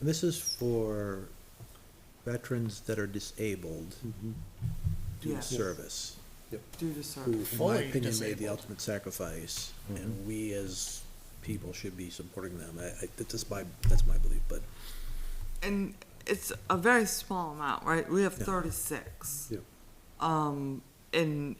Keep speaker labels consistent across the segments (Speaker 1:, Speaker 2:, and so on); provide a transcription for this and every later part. Speaker 1: This is for veterans that are disabled due
Speaker 2: Yeah.
Speaker 1: to service.
Speaker 2: Due to
Speaker 1: Who,
Speaker 2: service.
Speaker 1: in my
Speaker 3: Fully
Speaker 1: opinion, made the
Speaker 3: disabled.
Speaker 1: ultimate sacrifice, and we as people should be supporting them. I, I, that's my, that's my belief, but
Speaker 2: And it's a very small amount, right? We have
Speaker 1: Yeah.
Speaker 2: thirty-six.
Speaker 1: Yeah.
Speaker 2: Um, and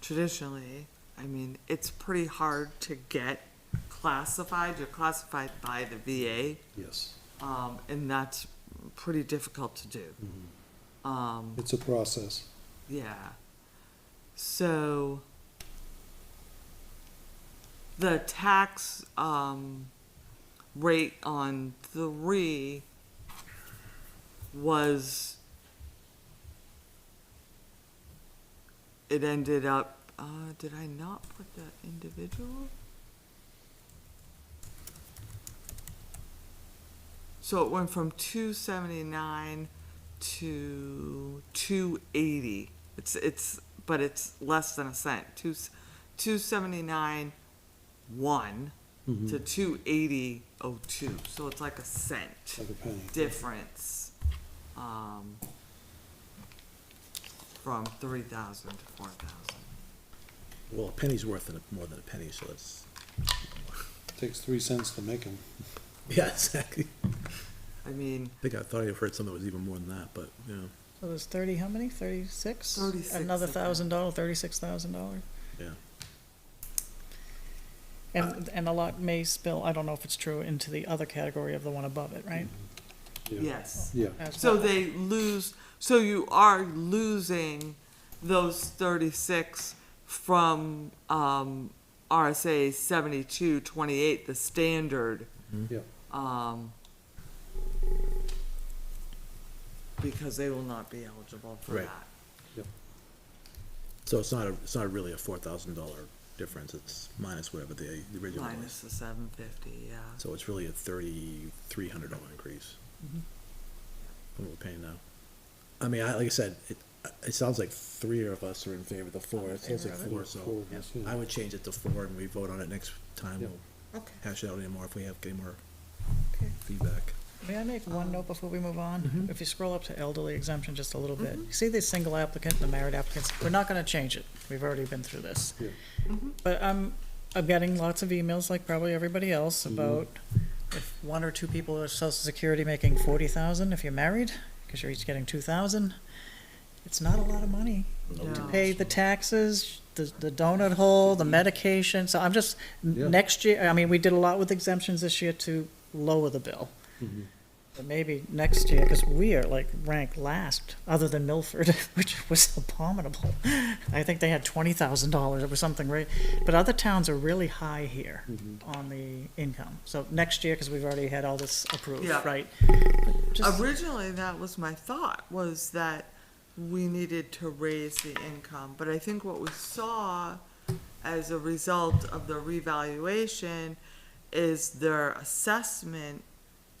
Speaker 2: traditionally, I mean, it's pretty hard to get classified. You're classified by the VA,
Speaker 4: Yes,
Speaker 2: um, and that's pretty difficult to do. Um,
Speaker 4: it's a process.
Speaker 2: yeah. So the tax um, rate on three was it ended up uh, did I not put the individual? So it went from two seventy nine to two eighty. It's it's but it's less than a cent. Two two seventy nine one
Speaker 4: Mm-hmm.
Speaker 2: to two eighty oh two. So it's like a cent
Speaker 4: Like a penny.
Speaker 2: difference um, from three thousand to four thousand.
Speaker 1: Well, a penny's worth than a- more than a penny, so it's,
Speaker 4: Takes three cents to make them.
Speaker 1: yeah, exactly. I
Speaker 2: I mean,
Speaker 1: think I thought I heard something that was even more than that, but, yeah,
Speaker 3: So there's thirty, how many, thirty-six?
Speaker 2: 36,
Speaker 3: Another
Speaker 2: I think.
Speaker 3: thousand dollar, thirty-six thousand dollar.
Speaker 1: yeah.
Speaker 3: And, and a lot may spill, I don't know if it's true, into the other category of the one above it, right?
Speaker 2: yes.
Speaker 4: Yeah,
Speaker 3: As
Speaker 2: Mm-hmm. So
Speaker 3: well.
Speaker 2: they lose, so you are losing those thirty-six from, um, RSA seventy-two twenty-eight, the standard,
Speaker 4: yeah,
Speaker 2: um, because they will not be eligible for
Speaker 1: Right.
Speaker 2: that.
Speaker 1: So it's not, a it's not really a four thousand dollar difference, it's minus whatever the the original
Speaker 2: Minus
Speaker 1: was.
Speaker 2: the seven fifty, yeah.
Speaker 1: So it's really a thirty-three hundred dollar increase.
Speaker 3: Mm-hmm.
Speaker 1: From what we're paying now. I mean, I, like I said, it, it sounds like three of us are in favor of the four, it sounds like
Speaker 3: Favor of it.
Speaker 1: four,
Speaker 4: Four
Speaker 1: so
Speaker 4: of us, yeah.
Speaker 1: I would change it to four and we vote on it next time,
Speaker 4: Yep.
Speaker 1: we'll
Speaker 2: Okay.
Speaker 1: hash it out anymore if we have any more
Speaker 3: Okay.
Speaker 1: feedback.
Speaker 3: May I make one note before we move
Speaker 2: Mm-hmm.
Speaker 3: on? If you scroll up to elderly exemption just a little bit, you see the single applicant, the married applicants, we're not gonna change it. We've already been through this.
Speaker 4: yeah.
Speaker 3: But I'm, I'm getting lots of emails, like probably everybody else, about if one or two people are social security making forty thousand, if you're married, because you're each getting two thousand, it's not a lot of money to
Speaker 2: No.
Speaker 3: pay the taxes, the, the donut hole, the medication, so I'm just,
Speaker 4: Yeah.
Speaker 3: n- next year, I mean, we did a lot with exemptions this year to lower the bill. But maybe next year, because we are like ranked last, other than Milford, which was abominable. I think they had twenty thousand dollars, it was something, right? But other towns are really high here on the income. So next year, because we've already had all this approved,
Speaker 2: Yeah.
Speaker 3: right? But just-
Speaker 2: Originally, that was my thought, was that we needed to raise the income, but I think what we saw as a result of the revaluation is their assessment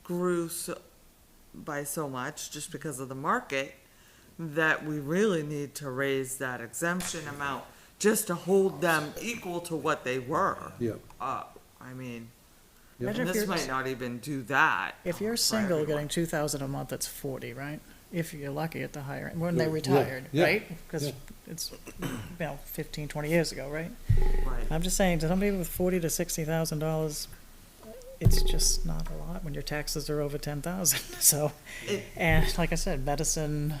Speaker 2: grew so, by so much, just because of the market, that we really need to raise that exemption amount just to hold them equal to what they were.
Speaker 4: Yeah.
Speaker 2: Up, I mean,
Speaker 3: Imagine
Speaker 2: and
Speaker 3: if
Speaker 2: this
Speaker 3: you're-
Speaker 2: might not even do that.
Speaker 3: If you're
Speaker 2: for
Speaker 3: single,
Speaker 2: everyone.
Speaker 3: getting two thousand a month, that's forty, right? If you're lucky at the higher end, when they
Speaker 4: Yeah, yeah,
Speaker 3: retired,
Speaker 4: yeah,
Speaker 3: right? Because
Speaker 4: yeah.
Speaker 3: it's, you know, fifteen, twenty years ago, right?
Speaker 2: Right.
Speaker 3: I'm just saying, to somebody with forty to sixty thousand dollars, it's just not a lot when your taxes are over ten thousand, so.
Speaker 2: It-
Speaker 3: And like I said, medicine,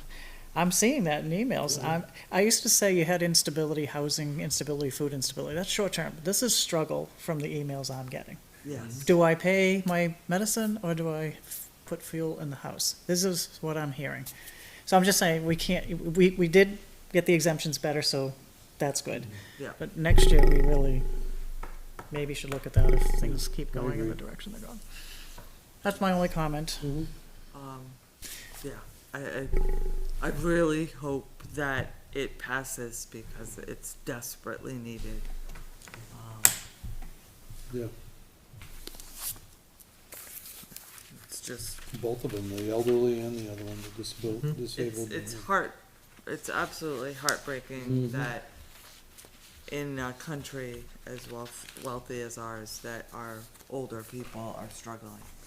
Speaker 3: I'm seeing that in emails. I'm, I used to say you had instability, housing instability, food instability, that's short term. This is struggle from the emails I'm getting.
Speaker 2: Yes.
Speaker 3: Do I pay my medicine or do I f- put fuel in the house? This is what I'm hearing. So I'm just saying, we can't, we, we did get the exemptions better, so that's good.
Speaker 2: Yeah.
Speaker 3: But next year, we really maybe should look at that if things keep going in the direction they're going. That's my only comment.
Speaker 2: Um, yeah, I, I, I really hope that it passes because it's desperately needed.
Speaker 4: Yeah,
Speaker 2: It's just,
Speaker 4: both of them, the elderly and the other one, the disabled,
Speaker 2: Mm-hmm. it's,
Speaker 4: disabled.
Speaker 2: it's heart, it's absolutely heartbreaking that in a country as wealth, wealthy as ours, that our older people are struggling.